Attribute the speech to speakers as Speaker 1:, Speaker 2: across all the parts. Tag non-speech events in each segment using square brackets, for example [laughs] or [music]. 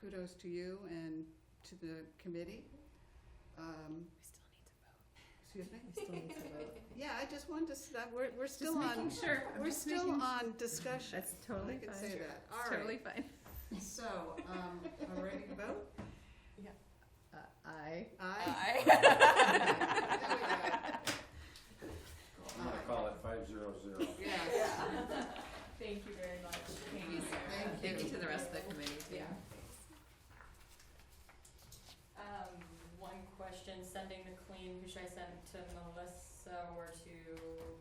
Speaker 1: kudos to you and to the committee. Um,
Speaker 2: We still need to vote.
Speaker 1: excuse me?
Speaker 2: We still need to vote.
Speaker 1: Yeah, I just wanted to, s- that, we're, we're
Speaker 2: Just
Speaker 1: still
Speaker 2: making
Speaker 1: on,
Speaker 2: sure. I'm
Speaker 1: we're
Speaker 2: just
Speaker 1: still
Speaker 2: making-
Speaker 1: on discussion.
Speaker 2: That's totally
Speaker 1: I can
Speaker 2: fine.
Speaker 1: say that,
Speaker 2: It's
Speaker 1: all
Speaker 2: Totally
Speaker 1: right.
Speaker 2: fine.
Speaker 1: So,
Speaker 2: [laughs]
Speaker 1: um, are we ready to vote?
Speaker 2: Uh, I.
Speaker 1: [laughs]
Speaker 2: [laughs]
Speaker 1: Aye.
Speaker 3: I'm gonna call it five zero zero.
Speaker 1: Yes,
Speaker 4: Thank you very much. Thank you, Sarah.
Speaker 1: thank you.
Speaker 2: Thank you to the rest of the committee too.
Speaker 4: Yeah. Um, one question, sending the clean, who should I send to Melissa or to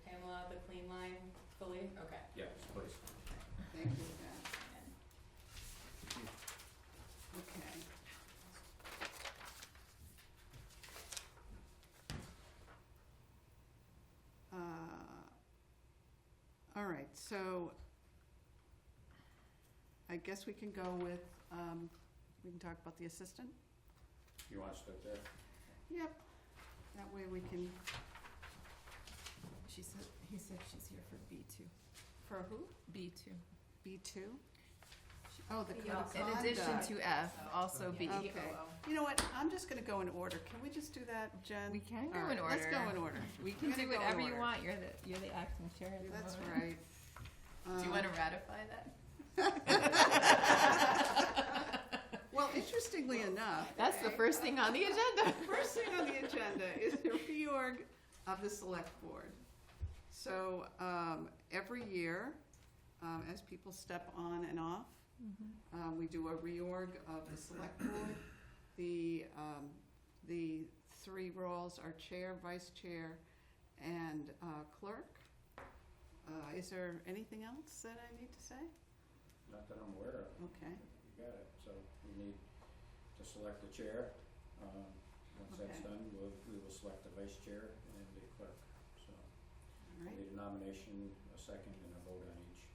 Speaker 4: Pamela, the clean line fully? Okay.
Speaker 3: Yes, please.
Speaker 1: Thank you, Pat. Okay. Uh, all right, so I guess we can go with, um, we can talk about the assistant?
Speaker 3: You want to start there?
Speaker 1: Yep. That way we can,
Speaker 2: She said, he said she's here for B two,
Speaker 1: for who?
Speaker 2: B two.
Speaker 1: B two? Oh, the code
Speaker 4: Yeah.
Speaker 1: of
Speaker 2: In addition
Speaker 1: conduct.
Speaker 2: to F, also B.
Speaker 1: Okay. You know what, I'm just gonna go in order. Can we just do that, Jen?
Speaker 2: We can
Speaker 1: All
Speaker 2: go in
Speaker 1: right, Let's go
Speaker 2: order.
Speaker 1: in order.
Speaker 2: You can
Speaker 1: Gotta
Speaker 2: do
Speaker 1: go in
Speaker 2: whatever you
Speaker 1: order.
Speaker 2: want. You're the, you're the acting chair at the moment.
Speaker 1: That's right.
Speaker 2: Do you
Speaker 1: Um,
Speaker 2: wanna ratify that?
Speaker 1: Well, interestingly enough.
Speaker 2: That's the first thing on the [laughs] agenda.
Speaker 1: First thing on the agenda is the reorg of the select board. So, um, every year, um, as people step on and off, um, we do a reorg of the select board. The, um, the three roles are chair, vice chair, and, uh, clerk. Uh, is there anything else that I need to say?
Speaker 3: Not that I'm aware of.
Speaker 1: Okay.
Speaker 3: You got it. So we need to select the chair. Um, once that's
Speaker 1: Okay.
Speaker 3: done, we'll, we will select the vice chair and the clerk. So
Speaker 1: All
Speaker 3: we
Speaker 1: right,
Speaker 3: need a nomination, a second, and a vote on each.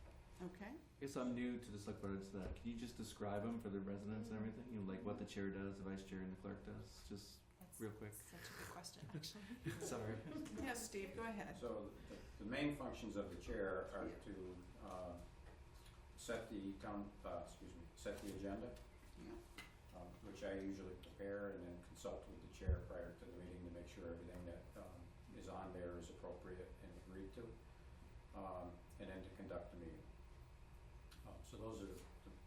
Speaker 1: okay.
Speaker 5: I guess I'm new to the select board, so that, can you just describe them for the residents and everything? You know, like what the chair does, the vice chair and the clerk does, just real quick.
Speaker 4: Such a good
Speaker 5: [laughs]
Speaker 4: question, actually.
Speaker 5: Sorry.
Speaker 1: Yeah, Steve, go ahead.
Speaker 3: So the, the main functions of the chair are
Speaker 1: Yeah.
Speaker 3: to, uh, set the town, uh, excuse me, set the agenda,
Speaker 1: Yeah.
Speaker 3: um, which I usually prepare and then consult with the chair prior to the meeting to make sure everything that, um, is on there is appropriate and agreed to, um, and then to conduct the meeting. Um, so those are the,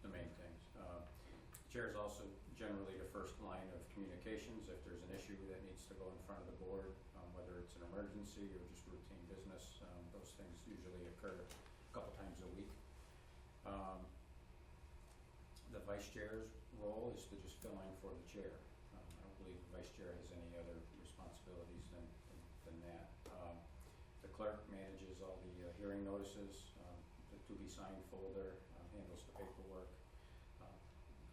Speaker 3: the main things. Uh, the chair is also generally the first line of communications if there's an issue that needs to go in front of the board, um, whether it's an emergency or just routine business, um, those things usually occur a couple times a week. Um, the vice chair's role is to just fill in for the chair. Um, I don't believe the vice chair has any other responsibilities than, than- than that. Um, the clerk manages all the uh, hearing notices, um, the to-be-signed folder, uh, handles the paperwork. Uh,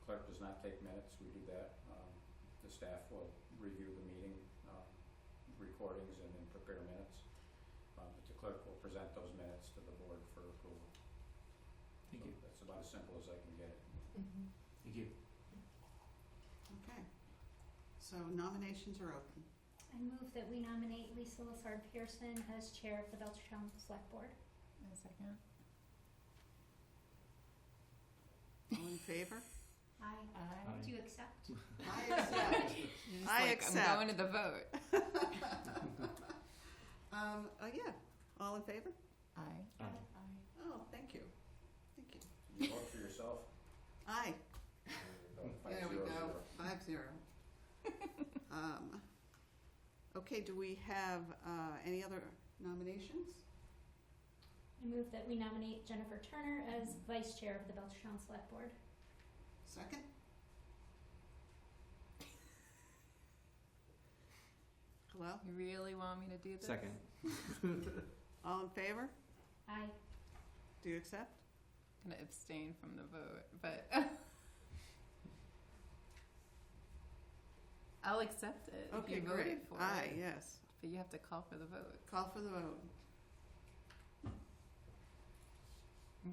Speaker 3: Clerk does not take minutes, we do that. Um, the staff will review the meeting, um, recordings and then prepare minutes. Um, but the clerk will present those minutes to the board for approval.
Speaker 5: Thank
Speaker 3: So
Speaker 5: you.
Speaker 3: That's about as simple as I can get it.
Speaker 4: Mm-hmm.
Speaker 5: Thank you.
Speaker 1: Okay. So nominations are open.
Speaker 6: I move that we nominate Lisa Lissard Pearson as chair of the Belchertown Select Board.
Speaker 2: A second.
Speaker 1: All in favor?
Speaker 6: Aye.
Speaker 5: Aye.
Speaker 6: Do you accept?
Speaker 1: I accept.
Speaker 2: You're just
Speaker 1: I
Speaker 2: like,
Speaker 1: accept.
Speaker 2: I'm going to the vote.
Speaker 1: Um, oh, yeah. All in favor?
Speaker 2: Aye.
Speaker 5: Aye.
Speaker 1: Oh, thank you. Thank you.
Speaker 3: Did you vote for yourself?
Speaker 1: Aye.
Speaker 3: Five
Speaker 1: There we
Speaker 3: zero
Speaker 1: go.
Speaker 3: zero.
Speaker 1: Five zero. Um, okay, do we have, uh, any other nominations?
Speaker 6: I move that we nominate Jennifer Turner as vice chair of the Belchertown Select Board.
Speaker 1: Second? Hello?
Speaker 2: You really want me to do this?
Speaker 5: Second.
Speaker 1: All in favor?
Speaker 6: Aye.
Speaker 1: Do you accept?
Speaker 2: I'm gonna abstain from the vote, but [laughs] I'll accept it if
Speaker 1: Okay,
Speaker 2: you voted
Speaker 1: great.
Speaker 2: for
Speaker 1: Aye,
Speaker 2: it.
Speaker 1: yes.
Speaker 2: But you have to call for the vote.
Speaker 1: Call for the vote.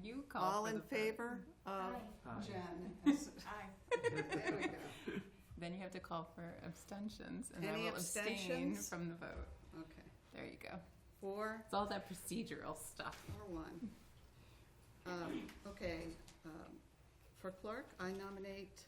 Speaker 2: You call
Speaker 1: All
Speaker 2: for
Speaker 1: in
Speaker 2: the vote. [laughs]
Speaker 1: favor of
Speaker 6: Aye.
Speaker 5: Aye.
Speaker 1: Jen? as- There we go.
Speaker 2: Then you have to call for abstentions, and
Speaker 1: Any
Speaker 2: I will abstain
Speaker 1: abstentions?
Speaker 2: from the vote.
Speaker 1: Okay.
Speaker 2: There you go.
Speaker 1: Four,
Speaker 2: It's all that procedural stuff.
Speaker 1: or one. Um, okay, um, for clerk, I nominate